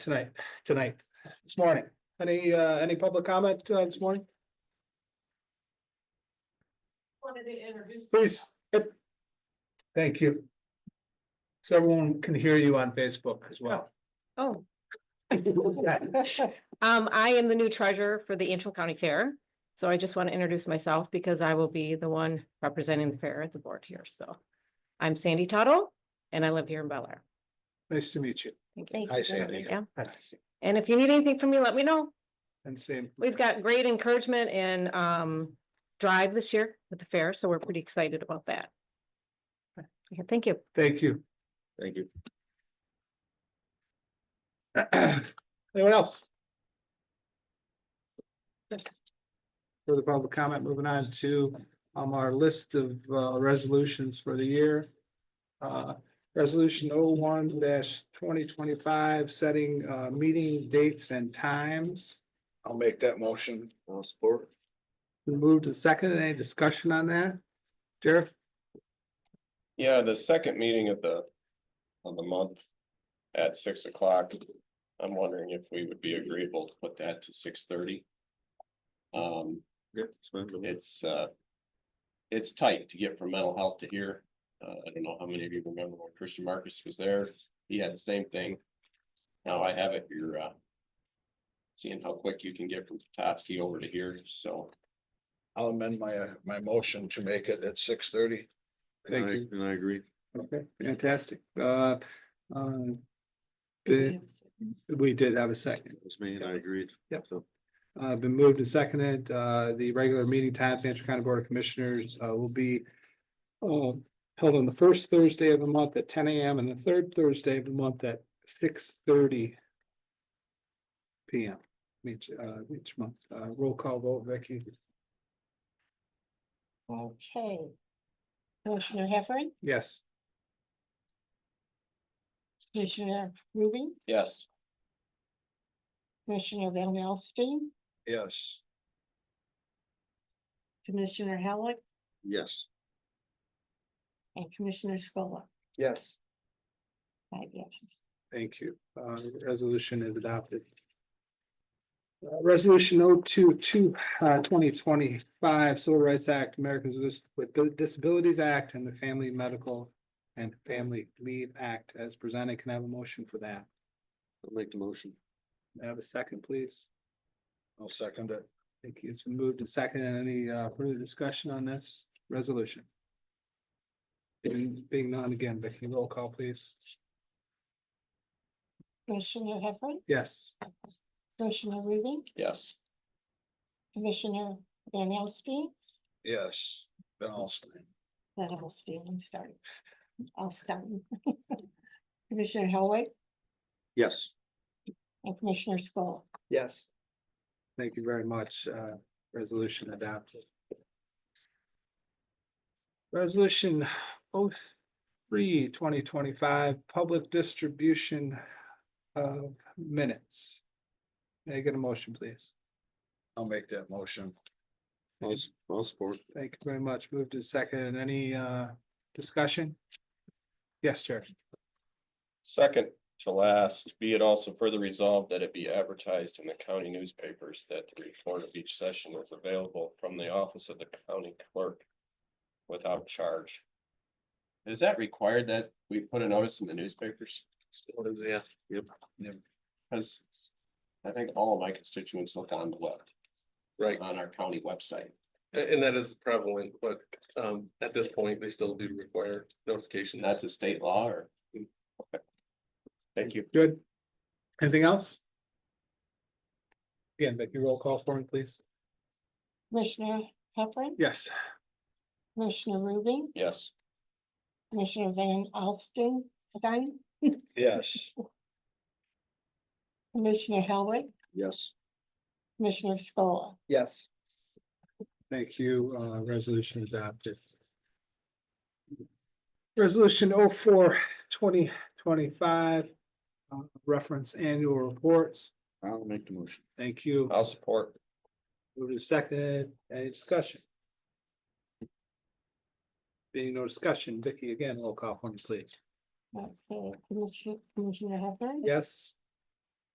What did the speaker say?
tonight, tonight, this morning. Any, uh, any public comment uh, this morning? Wanted to introduce. Please. it- Thank you. So everyone can hear you on Facebook as well. Oh, Oh. um, I am the new treasurer for the Antrim County Fair. So I just want to introduce myself because I will be the one representing the fair at the board here. So I'm Sandy Tuttle and I live here in Bel Air. Nice to meet you. Thank you. Hi, Sandy. Yeah. And if you need anything from me, let me know. And same. We've got great encouragement and, um, drive this year with the fair. So we're pretty excited about that. Okay, Thank you. Thank you. Thank you. Anyone else? Further public comment, moving on to um our list of uh resolutions for the year. Uh, resolution oh one twenty twenty-five, setting uh meeting dates and times. I'll make that motion. I'll support. We moved to second, any discussion on that? Jared, Yeah, the second meeting of the, of the month at six o'clock. I'm wondering if we would be agreeable to put that to six thirty. Um, it's, uh, it's tight to get from mental health to here. Uh, I don't know how many of you remember when Christian Marcus was there. He had the same thing. Now I have it, you're, uh, seeing how quick you can get from Totsky over to here, so. I'll amend my, uh, my motion to make it at six thirty. thank you, And I agree. okay, fantastic, uh, um. the- we did have a second. It was me and I agreed. Yep. So Uh, been moved and seconded, uh, the regular meeting times, Antrim County Board of Commissioners, uh, will be. Uh, held on the first Thursday of the month at ten AM and the third Thursday of the month at six thirty. PM, each, uh, each month, uh, roll call vote, Vicky, Okay. Commissioner Heffernan, yes. Commissioner Ruby, Yes, Commissioner Van Alstine, Yes, Commissioner Halleck, Yes. and Commissioner Scola. Yes. Five yeses. Thank you. Uh, the resolution is adopted. Uh, Resolution 022 uh, twenty twenty-five Civil Rights Act, Americans with with Disabilities Act, and the Family Medical and Family Leave Act as presented. Can I have a motion for that? I'll make the motion. May I have a second, please? I'll second it. Thank you. It's been moved and seconded. Any uh, further discussion on this resolution? Being being none again, Vicky, roll call, please. Commissioner Heffernan, Yes. Commissioner Ruby, yes, Commissioner Van Alstine, Yes, then I'll stand. Van Alstine, I'm starting. I'll start. Commissioner Halleck Yes. and Commissioner Scola. Yes. Thank you very much. Uh, resolution adopted. Resolution 03 2025 public distribution of minutes. May I get a motion, please? I'll make that motion. I'll, s- I'll support. Thank you very much. Move to second. Any, uh, discussion? Yes, Chair. Second to last, be it also further resolved that it be advertised in the county newspapers that the report of each session is available from the office of the county clerk without charge. Is that required that we put a notice in the newspapers? Yeah. Because I think all of my constituents look on the web. Right. On our county website. A- And that is prevalent, but um at this point, they still do require notification. Mm. And that's a state law or? Okay. Thank you. Good. Anything else? Again, Vicky, roll call for me, please. Commissioner Heffernan, Yes. Commissioner Ruby, Yes. Commissioner Van Alstine, Stein, Yes. Commissioner Halleck, Yes. Commissioner Scola. Yes. Thank you. Uh, resolution adopted. Resolution 04 four twenty twenty-five, uh, reference annual reports. I'll make the motion. Thank you. I'll support. Move to second, any discussion? Being no discussion, Vicky, again, roll call for me, please. Okay, Commissioner, Commissioner Heffernan, Yes,